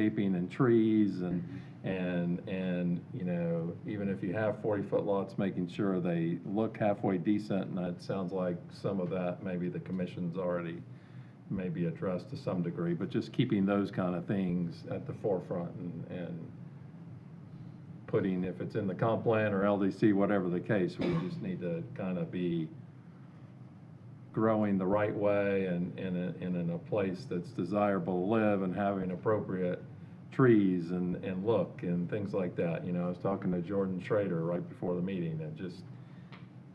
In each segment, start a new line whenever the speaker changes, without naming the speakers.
landscaping and trees and, and, and, you know, even if you have forty-foot lots, making sure they look halfway decent, and it sounds like some of that, maybe the commission's already maybe addressed to some degree, but just keeping those kind of things at the forefront and, and putting, if it's in the comp plan or LDC, whatever the case, we just need to kind of be growing the right way and, and, in- and in a place that's desirable to live and having appropriate trees and, and look and things like that. You know, I was talking to Jordan Schrader right before the meeting and just,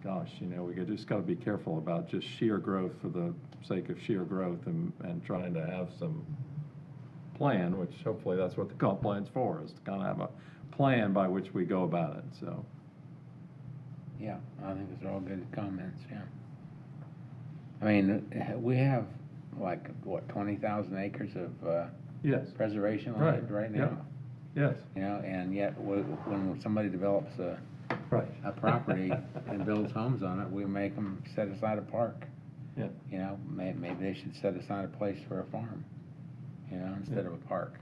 gosh, you know, we could- just gotta be careful about just sheer growth for the sake of sheer growth and, and trying to have some plan, which hopefully that's what the comp plan's for, is to kind of have a plan by which we go about it, so.
Yeah, I think those are all good comments, yeah. I mean, uh, we have like, what, twenty thousand acres of uh,
Yes,
preservation
Right,
land right
yeah.
now?
yes,
You know, and yet, wh- when somebody develops a,
right.
a property and builds homes on it, we make them set aside a park.
Yeah.
You know, may, maybe they should set aside a place for a farm, you know, instead of a park.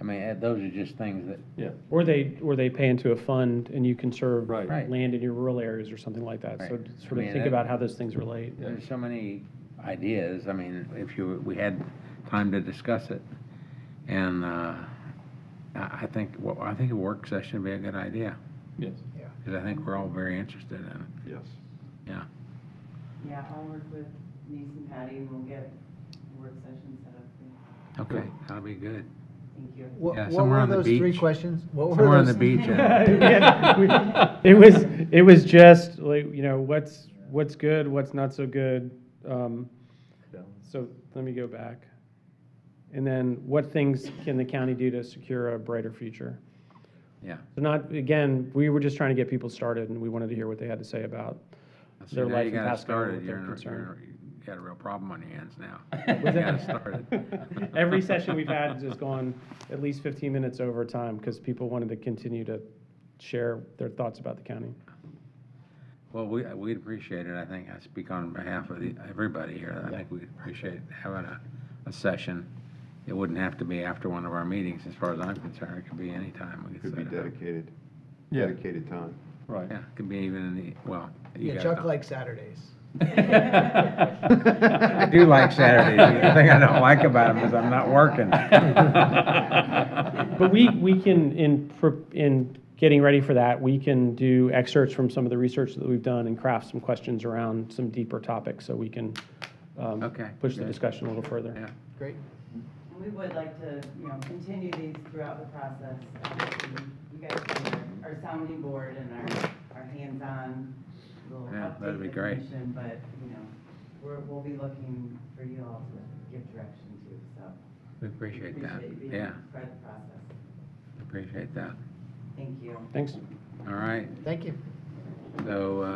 I mean, uh, those are just things that,
Or they, or they pay into a fund and you conserve
Right.
Right.
land in your rural areas or something like that. So
Right.
sort
I
of
mean,
think
that-
about how those things relate.
Yeah.
There's so many ideas, I mean, if you, we had time to discuss it, and, uh, I, I think, well, I think a work session would be a good idea,
Yes.
because I think we're all very interested in it.
Yes.
Yeah, I'll work with Denise and Patty, and we'll get a work session set up.
Okay, that'll be good.
Thank you.
What,
Yeah,
what
somewhere
were
on the
those three
beach.
questions? What were
Somewhere on the
those-
beach, and
Yeah, we- It was, it was just like, you know, what's, what's good, what's not so good. Um,
Yeah.
So let me go back. And then what things can the county do to secure a brighter future?
Yeah.
So not, again, we were just trying to get people started and we wanted to hear what they had to say about.
so
Their
now
life
you
in
got it
Pasco,
started,
what
you're,
they're
in-
concerned.
you're, you got a real problem on your hands now. You got it started.
Every session we've had has gone at least 15 minutes over time because people wanted to continue to share their thoughts about the county.
Well, we, we'd appreciate it, I think, I speak on behalf of the, everybody here, I think we'd appreciate having a, a session. It wouldn't have to be after one of our meetings, as far as I'm concerned, it could be any time we could
Could be
set it up.
dedicated,
Yeah.
dedicated time.
Right.
Yeah, it could be even in the, well, you
Yeah,
guys
Chuck
don't.
likes Saturdays.
I do like Saturdays, the thing I don't like about them is I'm not working.
But we, we can, in, pro- in getting ready for that, we can do excerpts from some of the research that we've done and craft some questions around some deeper topics so we can um,
Okay,
push the
good.
discussion a little further.
Yeah.
Great.
And we would like to, you know, continue these throughout the process. Um, You guys are our sounding board and our, our hands-on. We'll
Yeah, that'd
update
be
the
great.
commission, But, you know, we're, we'll be looking for you all to give direction to, so.
We appreciate that,
Appreciate you being
yeah,
part of the process.
appreciate that,
Thank you.
Thanks.
all right,
Thank you.
so, uh,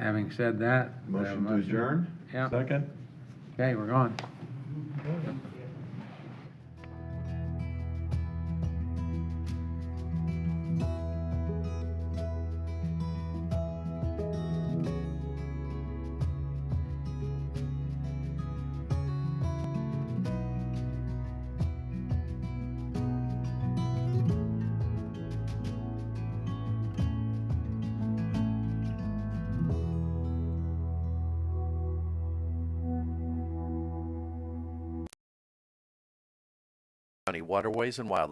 having said that. we have a
Motion to adjourn?
Yeah,
Second?
okay, we're gone.
Thank you.
County Waterways and Wildlife